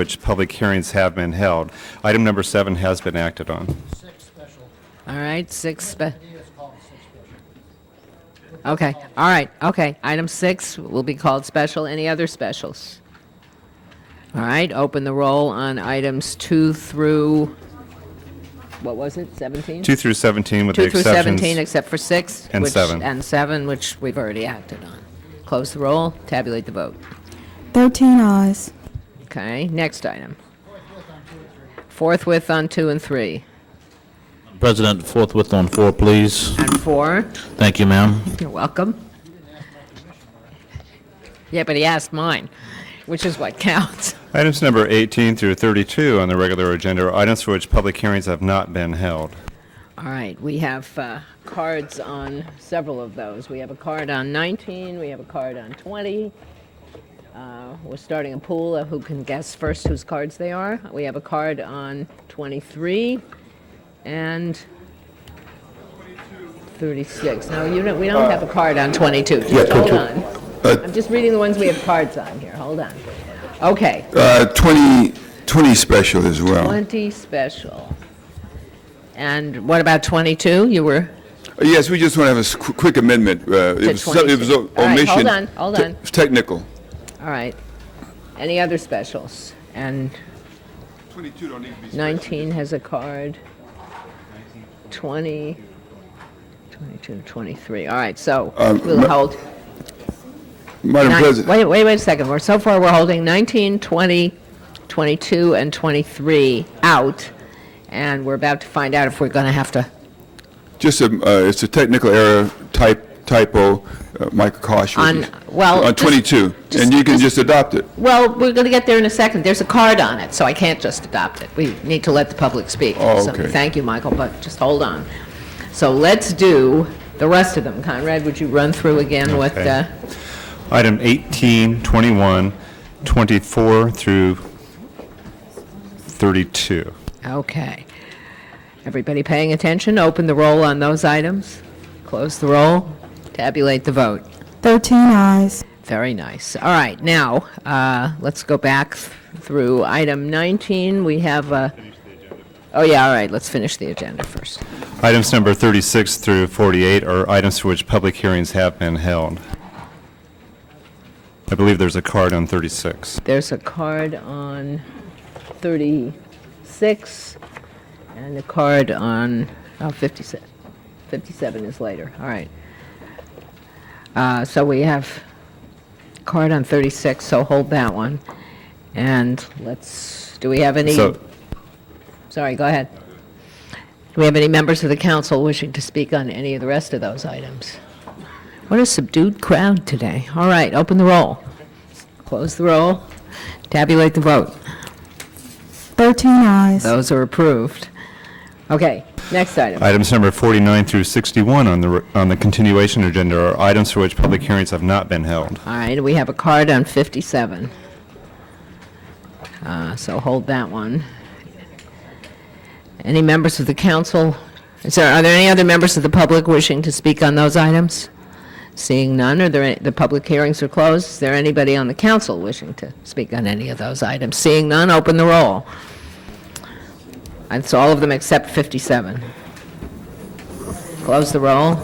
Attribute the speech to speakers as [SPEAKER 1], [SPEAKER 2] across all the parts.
[SPEAKER 1] which public hearings have been held. Item number seven has been acted on.
[SPEAKER 2] Six special.
[SPEAKER 3] All right, six, spe-
[SPEAKER 2] It is called six special.
[SPEAKER 3] okay, all right, okay. Item six will be called special. Any other specials? All right, open the roll on items two through, what was it, 17?
[SPEAKER 1] Two through 17 with the
[SPEAKER 3] Two through
[SPEAKER 1] exceptions.
[SPEAKER 3] 17, except for six.
[SPEAKER 1] And
[SPEAKER 3] which-
[SPEAKER 1] seven.
[SPEAKER 3] And seven, which we've already acted on. Close the roll, tabulate the vote.
[SPEAKER 4] 13 eyes.
[SPEAKER 3] Okay, next item. Forthwith on two and three.
[SPEAKER 5] President, forthwith on four, please.
[SPEAKER 3] And four,
[SPEAKER 5] Thank you, ma'am.
[SPEAKER 3] you're welcome. Yeah, but he asked mine, which is what counts.
[SPEAKER 1] Items number 18 through 32 on the regular agenda are items for which public hearings have not been held.
[SPEAKER 3] All right, we have uh, cards on several of those. We have a card on 19, we have a card on 20. Uh, We're starting a pool of who can guess first whose cards they are. We have a card on 23 and 36. No, you don't, we don't have a card on 22. Just hold on. I'm just reading the ones we have cards on here. Hold on. Okay,
[SPEAKER 6] Uh, 20, 20 special as well.
[SPEAKER 3] 20 special. And what about 22? You were?
[SPEAKER 6] Uh, Yes, we just want to have a s- qu- quick amendment. uh, It
[SPEAKER 3] To
[SPEAKER 6] was something- it was
[SPEAKER 3] 22.
[SPEAKER 6] o-
[SPEAKER 3] All right,
[SPEAKER 6] omission.
[SPEAKER 3] hold on, hold
[SPEAKER 6] Te-
[SPEAKER 3] on.
[SPEAKER 6] Technical.
[SPEAKER 3] All right. Any other specials? And
[SPEAKER 6] 22 don't need to be
[SPEAKER 3] 19 has a card. 20, 22, 23. All right, so we'll
[SPEAKER 6] Uh, ma-
[SPEAKER 3] hold.
[SPEAKER 6] Madam
[SPEAKER 3] nine-
[SPEAKER 6] President.
[SPEAKER 3] Wait, wait, wait a second. We're, so far, we're holding 19, 20, 22, and 23 out, and we're about to find out if we're going to have to.
[SPEAKER 6] Just a, uh, it's a technical error type, typo, uh, Michael Kosh. was-
[SPEAKER 3] On- well,
[SPEAKER 6] On
[SPEAKER 3] just-
[SPEAKER 6] 22,
[SPEAKER 3] just-
[SPEAKER 6] and you can
[SPEAKER 3] just-
[SPEAKER 6] just adopt it.
[SPEAKER 3] Well, we're going to get there in a second. There's a card on it, so I can't just adopt it. We need to let the public speak.
[SPEAKER 6] Oh,
[SPEAKER 3] So
[SPEAKER 6] okay.
[SPEAKER 3] Thank you, Michael, but just hold on. So let's do the rest of them. Conrad, would you run through again what,
[SPEAKER 1] Okay.
[SPEAKER 3] uh,
[SPEAKER 1] Item 18, 21, 24 through 32.
[SPEAKER 3] uh, okay. Everybody paying attention? Open the roll on those items. Close the roll. Tabulate the vote.
[SPEAKER 4] 13 eyes.
[SPEAKER 3] Very nice. All right, now, uh, let's go back th- through item 19. We have a... Oh, yeah, all right, let's finish the agenda first.
[SPEAKER 1] Items number 36 through 48 are items for which public hearings have been held. I believe there's a card on 36.
[SPEAKER 3] There's a card on 36 and a card on oh, 57. 57 is later, all right. Uh, So we have card on 36, so hold that one. And let's, do we have any,
[SPEAKER 1] So,
[SPEAKER 3] sorry, go ahead. Do we have any members of the council wishing to speak on any of the rest of those items? What a subdued crowd today. All right, open the roll. Close the roll. Tabulate the vote.
[SPEAKER 4] 13 eyes.
[SPEAKER 3] Those are approved. Okay, next item.
[SPEAKER 1] items number 49 through 61 on the, re- on the continuation agenda are items for which public hearings have not been held.
[SPEAKER 3] All right, we have a card on 57. Uh, So hold that one. Any members of the council? Is there, are there any other members of the public wishing to speak on those items? Seeing none, are there, any- the public hearings are closed. Is there anybody on the council wishing to speak on any of those items? Seeing none, open the roll. That's all of them except 57. Close the roll.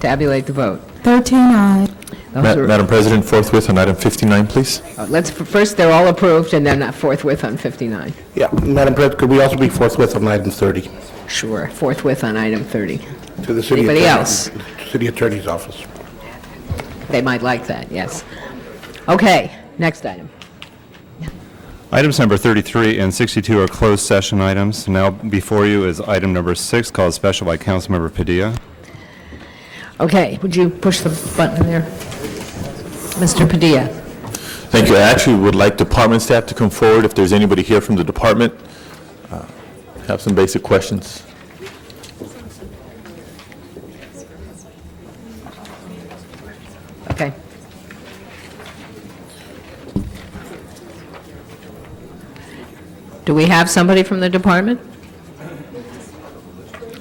[SPEAKER 3] Tabulate the vote.
[SPEAKER 4] 13 eyes.
[SPEAKER 3] Those
[SPEAKER 7] Ma-
[SPEAKER 3] are-
[SPEAKER 7] Madam President, forthwith on item 59, please.
[SPEAKER 3] Uh, Let's, first, they're all approved, and they're not forthwith on 59.
[SPEAKER 8] Yeah, Madam President, could we also be forthwith on item 30
[SPEAKER 3] Sure, forthwith on item 30.
[SPEAKER 8] to the city
[SPEAKER 3] Anybody
[SPEAKER 8] attorney?
[SPEAKER 3] else?
[SPEAKER 8] City attorney's office.
[SPEAKER 3] They might like that, yes. Okay, next item.
[SPEAKER 1] Items number 33 and 62 are closed session items. Now before you is item number six, called special by Councilmember Padilla.
[SPEAKER 3] Okay, would you push the button there? Mr. Padilla?
[SPEAKER 7] Thank you. I actually would like department staff to come forward if there's anybody here from the department. uh, Have some basic questions.
[SPEAKER 3] Okay. Do we have somebody from the department?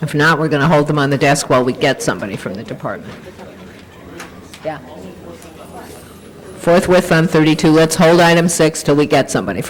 [SPEAKER 3] If not, we're going to hold them on the desk while we get somebody from the department. Yeah. forthwith on 32. Let's hold item six till we get somebody